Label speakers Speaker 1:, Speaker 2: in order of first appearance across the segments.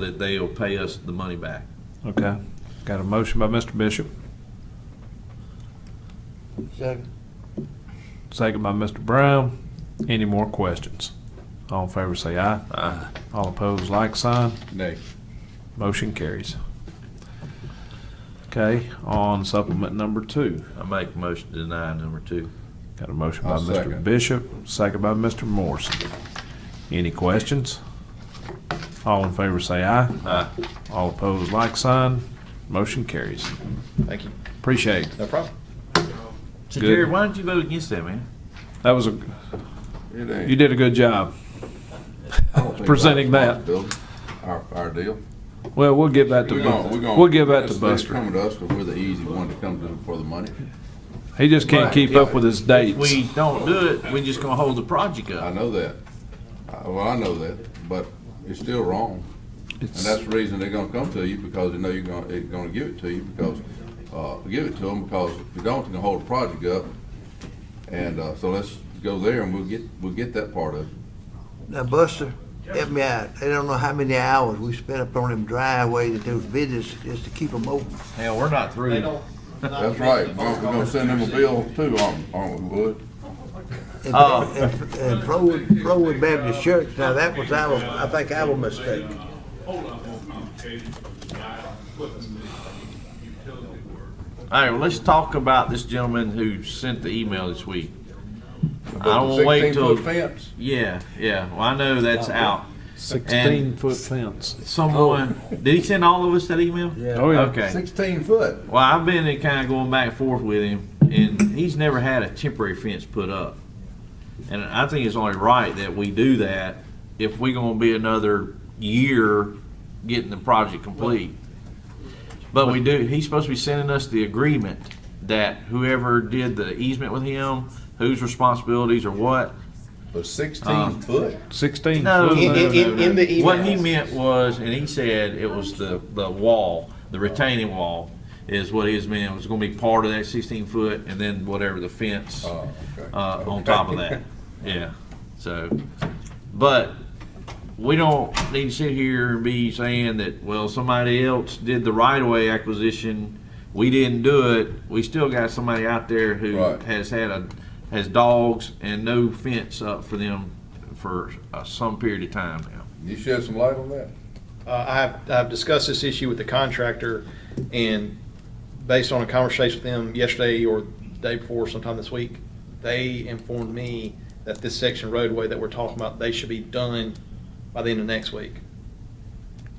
Speaker 1: that they'll pay us the money back.
Speaker 2: Okay. Got a motion by Mr. Bishop,
Speaker 3: Second.
Speaker 2: second by Mr. Brown. Any more questions? All in favor say aye.
Speaker 1: Aye.
Speaker 2: All opposed, like sign.
Speaker 1: Nay.
Speaker 2: Motion carries. Okay, on supplement number two.
Speaker 1: I make a motion to deny number two.
Speaker 2: Got a motion by
Speaker 4: I'll
Speaker 2: Mr.
Speaker 4: second.
Speaker 2: Bishop, second by Mr. Morrison. Any questions? All in favor say aye.
Speaker 1: Aye.
Speaker 2: All opposed, like sign. Motion carries.
Speaker 4: Thank you.
Speaker 2: Appreciate it.
Speaker 4: No problem.
Speaker 1: So
Speaker 2: Good.
Speaker 1: Jerry, why don't you vote against that, man?
Speaker 2: That was a, you did a good job. Presenting that.
Speaker 4: Our, our deal.
Speaker 2: Well, we'll give that to,
Speaker 4: We're gonna- we're gonna-
Speaker 2: we'll give that to
Speaker 4: it's- It's
Speaker 2: Buster.
Speaker 4: coming to us, because we're the easy one to come to for the money.
Speaker 2: He just can't keep up with his
Speaker 1: If
Speaker 2: dates.
Speaker 1: we don't do it, we're just gonna hold the project
Speaker 4: I
Speaker 1: up.
Speaker 4: know that. I- Well, I know that, but it's still wrong. And that's the reason they're gonna come to you, because they know you're gonna, they're gonna give it to you, because, uh, give it to them, because if you don't, you're gonna hold the project up. And, uh, so let's go there and we'll get, we'll get that part of it.
Speaker 3: Now Buster, help me out. They don't know how many hours we spent up on them driveway to do business just to keep them open.
Speaker 1: Hell, we're not
Speaker 5: They
Speaker 1: through.
Speaker 5: don't. not
Speaker 4: That's
Speaker 5: making
Speaker 4: right,
Speaker 5: the
Speaker 4: we're
Speaker 5: phone
Speaker 4: gonna we're gonna
Speaker 5: calls
Speaker 4: send them a
Speaker 5: Tuesday.
Speaker 4: bill too, aren't, aren't we, Wood?
Speaker 3: And-
Speaker 1: Uh,
Speaker 3: And and Flowood, Flowood Baptist Church, now that was our, I think our mistake.
Speaker 1: All right, well, let's talk about this gentleman who sent the email this week. I
Speaker 4: About
Speaker 1: don't
Speaker 4: the
Speaker 1: wanna wait
Speaker 4: 16 foot
Speaker 1: till,
Speaker 4: Fence.
Speaker 1: yeah, yeah, well, I know that's out.
Speaker 2: Sixteen foot fence.
Speaker 1: Someone,
Speaker 4: Oh.
Speaker 1: did he send all of us that email?
Speaker 2: Oh, yeah.
Speaker 1: Okay.
Speaker 4: Sixteen foot.
Speaker 1: Well, I've been kind of going back and forth with him, and he's never had a temporary fence put up. And I think it's only right that we do that if we're going to be another year getting the project complete. But we do, he's supposed to be sending us the agreement that whoever did the easement with him, whose responsibilities or what.
Speaker 4: But
Speaker 2: Uh,
Speaker 4: sixteen foot?
Speaker 2: Sixteen
Speaker 1: No,
Speaker 5: In,
Speaker 2: foot.
Speaker 1: no.
Speaker 5: in, in the email.
Speaker 1: What he meant was, and he said it was the, the wall, the retaining wall is what his meant. It was gonna be part of that sixteen foot and then whatever the fence, uh,
Speaker 4: Oh, okay.
Speaker 1: on top of that. Yeah, so, but we don't need to sit here and be saying that, well, somebody else did the right of way acquisition. We didn't do it. We still got somebody out there who
Speaker 4: Right.
Speaker 1: has had a, has dogs and no fence up for them for uh, some period of time now.
Speaker 4: You shed some light on that?
Speaker 5: Uh, I've, I've discussed this issue with the contractor, and based on a conversation with them yesterday or the day before, sometime this week, they informed me that this section roadway that we're talking about, they should be done by the end of next week.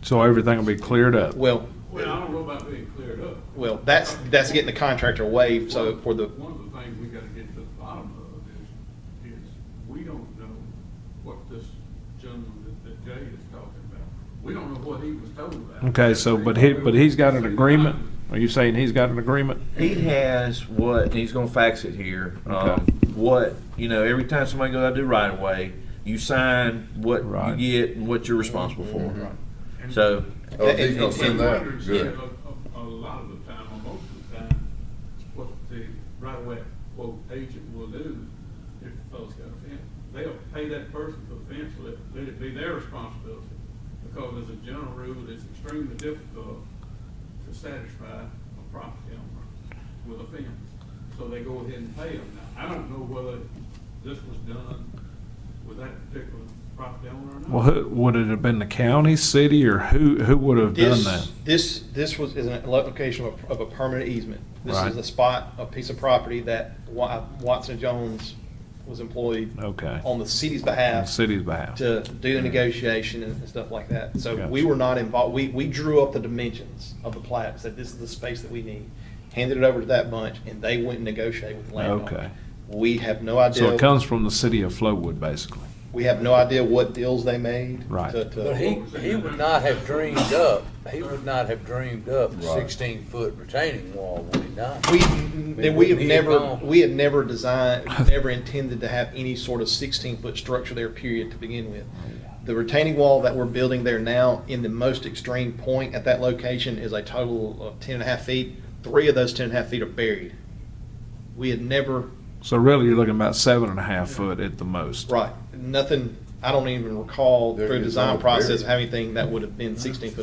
Speaker 2: So everything will be cleared up.
Speaker 5: Well,
Speaker 6: Well, I don't know about being cleared up.
Speaker 5: well, that's, that's getting the contractor waived, so for the,
Speaker 6: One of the things we gotta get to the bottom of is, is we don't know what this gentleman that- that Jay is talking about. We don't know what he was told about.
Speaker 2: Okay, so, but he, but he's got an agreement? Are you saying he's got an agreement?
Speaker 1: He has what, and he's gonna fax it here, um,
Speaker 2: Okay.
Speaker 1: what, you know, every time somebody goes out to do right of way, you sign what
Speaker 2: Right.
Speaker 1: you get and what you're responsible for. So,
Speaker 4: Oh, if he's gonna send
Speaker 6: And
Speaker 4: that,
Speaker 6: wondering,
Speaker 4: good.
Speaker 6: A, a- a lot of the time, or most of the time, what the right way quote agent will do if the fellow's got a fence. They'll pay that person for the fence, let, let it be their responsibility. Because as a general rule, it's extremely difficult to satisfy a property owner with a fence. So they go ahead and pay them. Now, I don't know whether this was done with that particular property owner or not.
Speaker 2: Well, who, would it have been the county, city, or who, who would have done that?
Speaker 5: this, this, this was, is an location of, a- of a permanent easement. This
Speaker 2: Right.
Speaker 5: is a spot, a piece of property that Wa- Watson Jones was employed
Speaker 2: Okay.
Speaker 5: on the city's
Speaker 2: On the
Speaker 5: behalf
Speaker 2: city's behalf.
Speaker 5: to do the negotiation and and stuff like that. So we
Speaker 2: Gotcha.
Speaker 5: were not involved, we, we drew up the dimensions of the plat, said this is the space that we need, handed it over to that bunch, and they went and negotiated with the
Speaker 2: Okay.
Speaker 5: landowner. We have no
Speaker 2: So it
Speaker 5: idea,
Speaker 2: comes from the city of Flowood, basically.
Speaker 5: we have no idea what deals they made.
Speaker 2: Right.
Speaker 5: to- to-
Speaker 7: But he, he would not have dreamed up, he would not have dreamed up a
Speaker 4: Right.
Speaker 7: sixteen foot retaining wall when he died.
Speaker 5: We,
Speaker 7: We-
Speaker 5: then we have
Speaker 7: we-
Speaker 5: never, we have never designed, never intended to have any sort of sixteen-foot structure there, period, to begin with. The retaining wall that we're building there now, in the most extreme point at that location, is a total of ten and a half feet. Three of those ten and a half feet are buried. We had never,
Speaker 2: So really, you're looking about seven and a half foot at the most.
Speaker 5: right, nothing I don't even recall
Speaker 4: There
Speaker 5: through
Speaker 4: is
Speaker 5: design
Speaker 4: no barrier.
Speaker 5: process of having anything that would have been sixteen foot